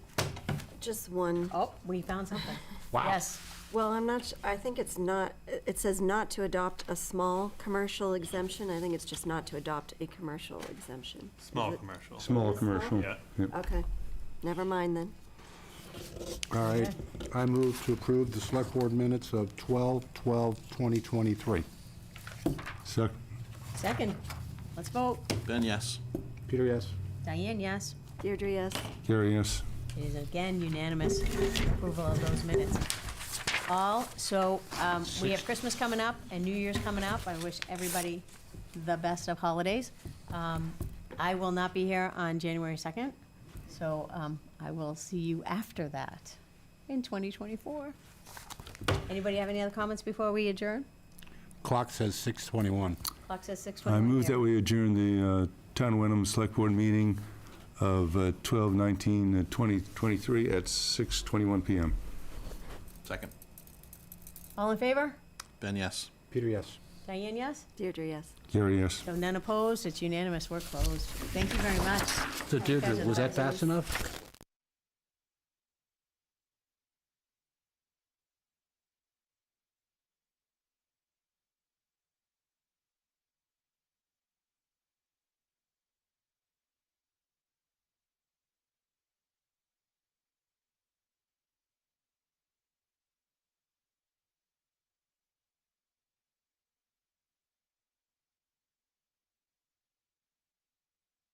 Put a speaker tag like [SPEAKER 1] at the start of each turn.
[SPEAKER 1] Just one.
[SPEAKER 2] Oh, we found something.
[SPEAKER 3] Wow.
[SPEAKER 2] Yes.
[SPEAKER 1] Well, I'm not, su- I think it's not, it says not to adopt a small commercial exemption. I think it's just not to adopt a commercial exemption. Is
[SPEAKER 4] Small
[SPEAKER 1] it-
[SPEAKER 4] commercial.
[SPEAKER 3] Small commercial.
[SPEAKER 4] Yeah.
[SPEAKER 3] Yep.
[SPEAKER 1] Okay, never mind then.
[SPEAKER 5] All right, I move to approve the Select Board minutes of 12/12/2023.
[SPEAKER 3] Sec-
[SPEAKER 2] Second, let's vote.
[SPEAKER 6] Ben, yes.
[SPEAKER 5] Peter, yes?
[SPEAKER 2] Diane, yes.
[SPEAKER 1] Deirdre, yes.
[SPEAKER 3] Gary, yes.
[SPEAKER 2] It is again unanimous approval of those minutes. All, so um, we have Christmas coming up and New Year's coming up. I wish everybody the best of holidays. Um, I will not be here on January 2nd, so um, I will see you after that in 2024. Anybody have any other comments before we adjourn?
[SPEAKER 5] Clock says 6:21.
[SPEAKER 2] Clock says 6:21.
[SPEAKER 7] I move that
[SPEAKER 2] here.
[SPEAKER 7] we adjourn the uh, Town of Wenham Select Board meeting of uh, 12/19/2023 uh, at 6:21 PM.
[SPEAKER 6] Second.
[SPEAKER 2] All in favor?
[SPEAKER 6] Ben, yes.
[SPEAKER 5] Peter, yes?
[SPEAKER 2] Diane, yes?
[SPEAKER 1] Deirdre, yes.
[SPEAKER 7] Gary, yes.
[SPEAKER 2] So none opposed, it's unanimous, we're closed. Thank you very much.
[SPEAKER 8] So Deirdre, was that fast enough?